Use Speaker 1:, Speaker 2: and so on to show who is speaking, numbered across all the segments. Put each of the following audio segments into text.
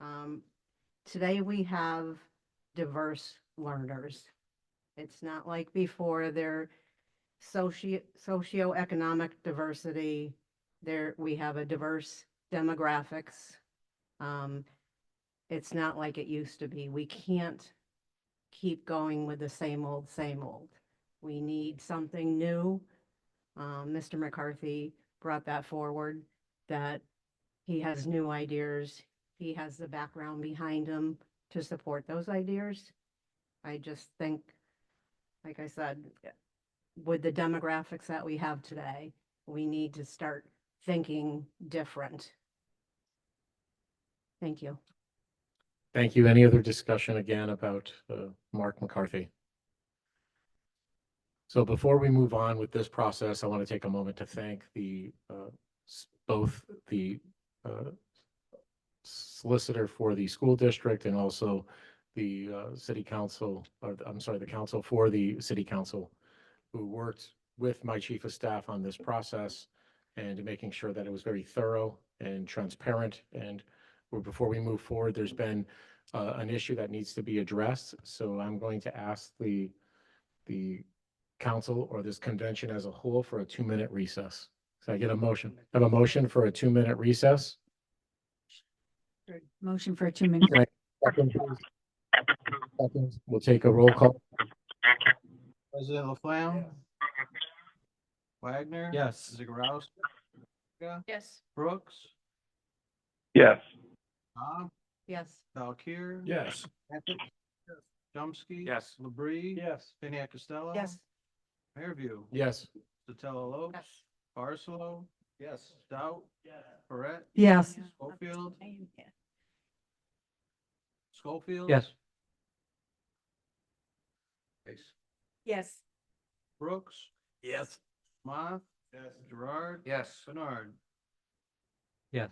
Speaker 1: Um, today we have diverse learners. It's not like before, they're socio, socioeconomic diversity. There, we have a diverse demographics. Um, it's not like it used to be. We can't keep going with the same old, same old. We need something new. Um, Mr. McCarthy brought that forward, that he has new ideas. He has the background behind him to support those ideas. I just think, like I said, with the demographics that we have today, we need to start thinking different. Thank you.
Speaker 2: Thank you. Any other discussion again about uh, Mark McCarthy? So before we move on with this process, I want to take a moment to thank the, uh, s- both the uh, solicitor for the school district and also the uh, city council, or the- I'm sorry, the council for the city council, who worked with my chief of staff on this process and making sure that it was very thorough and transparent. And well, before we move forward, there's been uh, an issue that needs to be addressed. So I'm going to ask the, the council or this convention as a whole for a two-minute recess. So I get a motion, I have a motion for a two-minute recess.
Speaker 3: Motion for a two minute.
Speaker 2: Second, please. Second. We'll take a roll call.
Speaker 4: President Laflamme? Wagner?
Speaker 2: Yes.
Speaker 4: Zagorowski?
Speaker 3: Yes.
Speaker 4: Brooks?
Speaker 5: Yes.
Speaker 4: Bob?
Speaker 1: Yes,
Speaker 4: Valkir?
Speaker 2: Yes.
Speaker 4: Chomsky?
Speaker 5: Yes.
Speaker 4: Labrie?
Speaker 5: Yes.
Speaker 4: Piniac Costello?
Speaker 1: yes,
Speaker 4: Fairview?
Speaker 2: Yes.
Speaker 4: Sotelo Lopes?
Speaker 1: yes,
Speaker 4: Barcelo? Yes. Stout? Yes. Barrett?
Speaker 3: Yes.
Speaker 4: Schofield? Schofield?
Speaker 3: Yes.
Speaker 4: Brooks?
Speaker 5: Yes.
Speaker 4: Moth? Yes. Gerard?
Speaker 5: Yes.
Speaker 4: Bernard?
Speaker 5: Yes.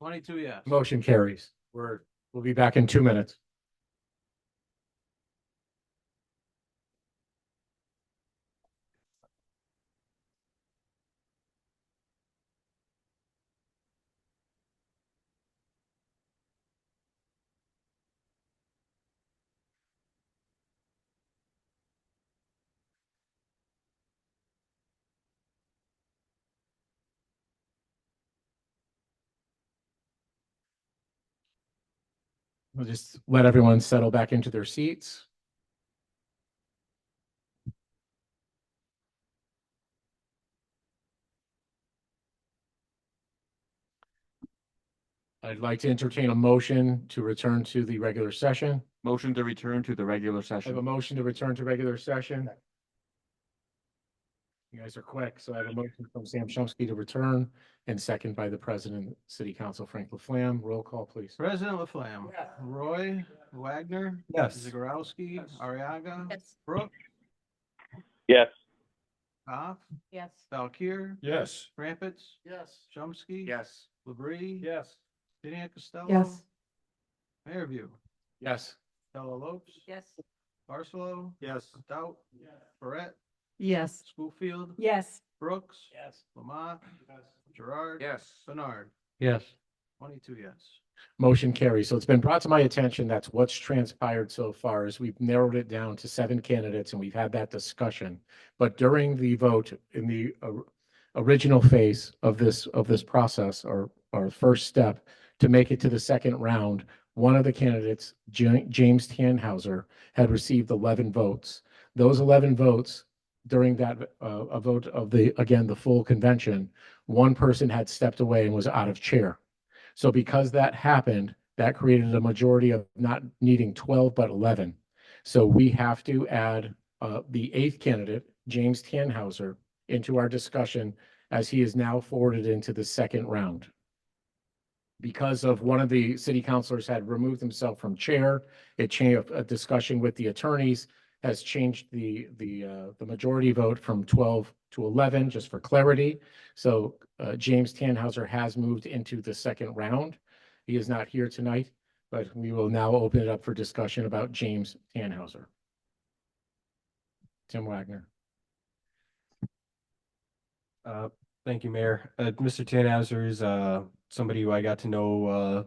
Speaker 4: Twenty-two yes.
Speaker 2: Motion carries. We're, we'll be back in two minutes. We'll just let everyone settle back into their seats. I'd like to entertain a motion to return to the regular session.
Speaker 5: Motion to return to the regular
Speaker 2: I have a
Speaker 5: session.
Speaker 2: motion to return to regular session. You guys are quick, so I have a motion from Sam Chomsky to return and second by the President, City Council Frank Laflamme. Roll call, please.
Speaker 4: President Laflamme? Roy? Wagner?
Speaker 2: Yes.
Speaker 4: Zagorowski?
Speaker 5: Yes.
Speaker 4: Ariaga?
Speaker 1: yes,
Speaker 4: Brooks?
Speaker 5: Yes.
Speaker 4: Goff?
Speaker 1: yes,
Speaker 4: Valkir?
Speaker 5: Yes.
Speaker 4: Crumpets?
Speaker 5: Yes.
Speaker 4: Chomsky?
Speaker 5: Yes.
Speaker 4: Labrie?
Speaker 5: Yes.
Speaker 4: Piniac Costello?
Speaker 3: Yes.
Speaker 4: Fairview?
Speaker 2: Yes.
Speaker 4: Costello Lopes?
Speaker 1: yes,
Speaker 4: Barcelo?
Speaker 5: Yes.
Speaker 4: Stout? Barrett?
Speaker 3: Yes.
Speaker 4: Schofield?
Speaker 3: Yes.
Speaker 4: Brooks?
Speaker 5: Yes.
Speaker 4: Lamont? Gerard?
Speaker 5: Yes.
Speaker 4: Bernard?
Speaker 2: Yes.
Speaker 4: Twenty-two yes.
Speaker 2: Motion carries. So it's been brought to my attention, that's what's transpired so far is we've narrowed it down to seven candidates and we've had that discussion. But during the vote in the or- original phase of this, of this process, or our first step to make it to the second round, one of the candidates, Ja- James Tannhauser, had received 11 votes. Those 11 votes during that, uh, a vote of the, again, the full convention, one person had stepped away and was out of chair. So because that happened, that created a majority of not needing twelve, but eleven. So we have to add uh the eighth candidate, James Tannhauser, into our discussion as he is now forwarded into the second round. Because of one of the city councilors had removed himself from chair, it changed a discussion with the attorneys has changed the the uh the majority vote from twelve to eleven, just for clarity. So uh, James Tannhauser has moved into the second round. He is not here tonight, but we will now open it up for discussion about James Tannhauser. Tim Wagner.
Speaker 6: Uh, thank you, Mayor. Uh, Mr. Tannhauser is, uh, somebody who I got to know, uh,